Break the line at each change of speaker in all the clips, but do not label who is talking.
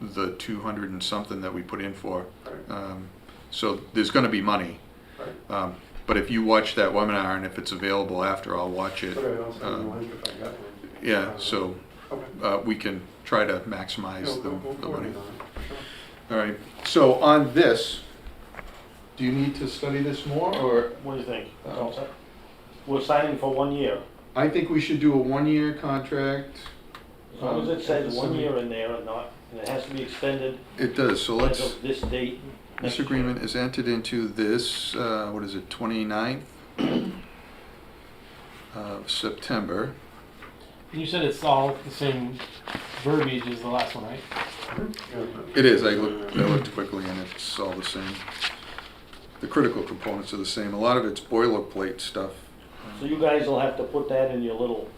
the two hundred and something that we put in for. Um, So there's gonna be money. Um, But if you watch that webinar and if it's available after, I'll watch it.
Okay, I'll send you
Um,
a link if I got one.
Yeah, so
Okay.
uh, we can try to maximize
We'll-
the
we'll-
the
we'll
money.
coordinate on it, for sure.
All right, so on this, do you need to study this more, or?
What do you think?
Uh,
Don't say- We're signing for one year.
I think we should do a one-year contract.
As long as
Um,
it says one
something-
year in there and not, and it has to be extended
It does, so
as
let's,
of this date. next
this
year.
agreement is entered into this, uh, what is it, 29th of September.
You said it's all the same verbiage as the last one, right?
Yeah.
It is, I looked, I looked quickly and it's all the same. The critical components are the same, a lot of it's boilerplate stuff.
So you guys will have to put that in your little,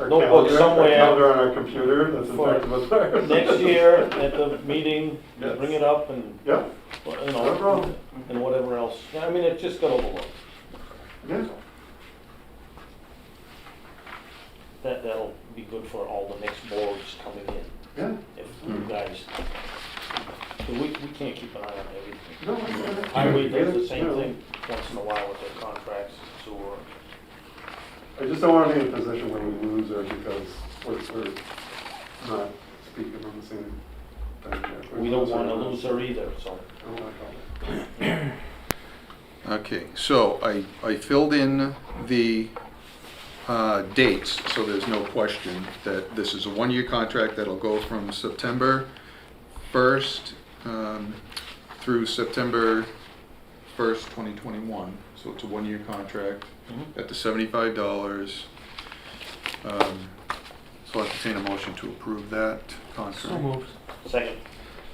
Our
Notebook
calendar- our
somewhere.
Calendar on our computer, that's in
For
fact what's there.
next year at the meeting,
Yes.
bring it up and,
Yeah,
you
No
know,
problem.
and whatever else. I mean, it just got overlooked.
yeah.
That, that'll be good for all the next boards coming in,
Yeah,
if
Mm-hmm.
you guys. We, we can't keep an eye on everything.
no, I get it.
Highway does
Yeah,
the same
yeah.
thing once in a while with their contracts, so we're,
I just don't want to be in a position where we lose her because we're, we're not speaking on the same thing. Oh, here.
we don't wanna lose her either, so.
I don't wanna call it.
Okay, so I, I filled in the uh, dates, so there's no question that this is a one-year contract that'll go from September 1st um, through September 1st, 2021. So it's a one-year contract
Mm-hmm.
at the $75. Um, So I entertain a motion to approve that contract.
So moved.
Second,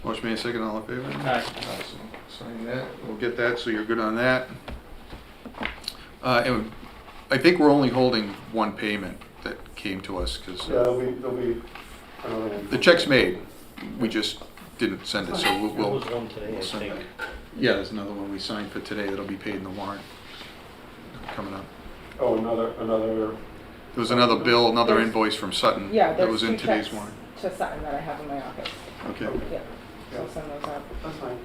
Motion made, second, all in favor?
Aye.
Awesome. Sign that, we'll get that, so you're good on that. Uh, and I think we're only holding one payment that came to us,
Yeah, there'll
because
be, there'll be another one.
the check's made, we just didn't send it, so we'll-
there was
we'll,
one today, I
we'll send
think.
that. Yeah, there's another one we signed for today that'll be paid in the warrant coming up.
Oh, another, another,
There was another bill, another
There's-
invoice from Sutton
Yeah,
that
there's
was
two
in today's
checks
warrant.
to sign that I have in my office.
Okay,
Yeah, so
yeah,
I'll send those out.
that's fine.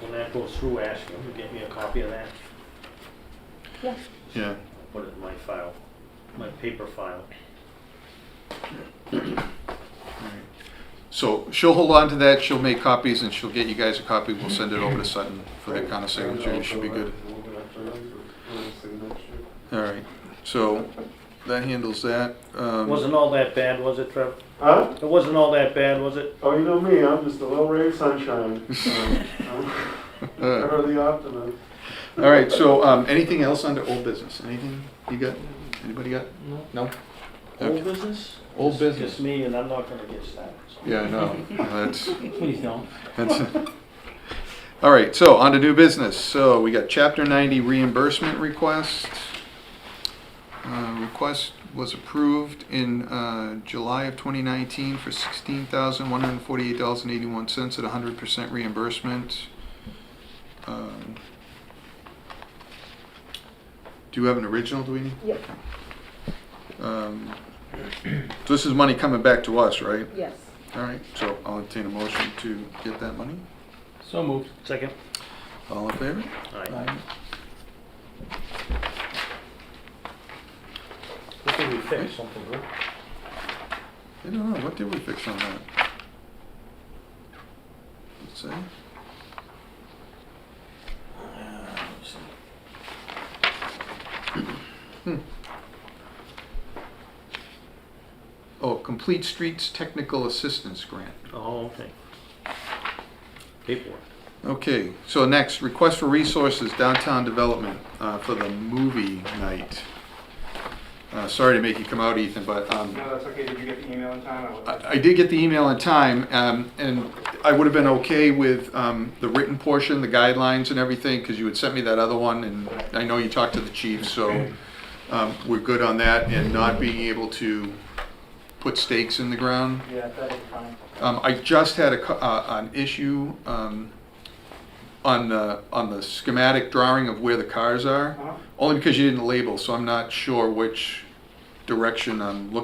When that goes through, ask them to get me a copy of that,
Yeah,
yeah.
put it in my file, my paper file.
Alright. So she'll hold on to that, she'll make copies and she'll get you guys a copy, we'll send it over to Sutton for that kind of signature, it should be good.
We'll do that for us, and we'll see next year.
Alright, so that handles that. Um,
Wasn't all that bad, was it, Trev?
Huh?
It wasn't all that bad, was it?
Oh, you know me, I'm just a little ray of sunshine. Um, I'm
uh,
Ever the optimist.
Alright, so um, anything else under old business, anything you got, anybody got?
No.
No?
Old
Okay.
business?
Old
Just
business,
me, and I'm not gonna get started, so.
yeah, no, that's,
Please don't.
that's. Alright, so on to new business, so we got chapter ninety reimbursement request. Uh, Request was approved in uh, July of 2019 for $16,148.81 at 100% reimbursement. Um, Do you have an original, do we need?
yep,
Um, So this is money coming back to us, right?
yes.
All right, so I'll entertain a motion to get that money.
So moved.
Second?
All in favor?
Aye. I think we fixed something, huh?
I don't know, what did we fix on that? Let's see. Uh, Oh, Complete Streets Technical Assistance Grant.
Oh, okay. Paperwork.
Okay, so next, request for resources downtown development uh, for the movie night. Uh, Sorry to make you come out, Ethan, but um,
No, that's okay. Did you get the email in time? I was-
I I did get the email in time, um, and I would have been okay with um, the written portion, the guidelines and everything, because you had sent me that other one, and I know you talked to the chief, so um, we're good on that, and not being able to put stakes in the ground.
Yeah, that was fine.
Um, I just had a, co- uh, an issue, um, on the, on the schematic drawing of where the cars are.
Uh-huh.
Only because you didn't label, so I'm not sure which direction I'm looking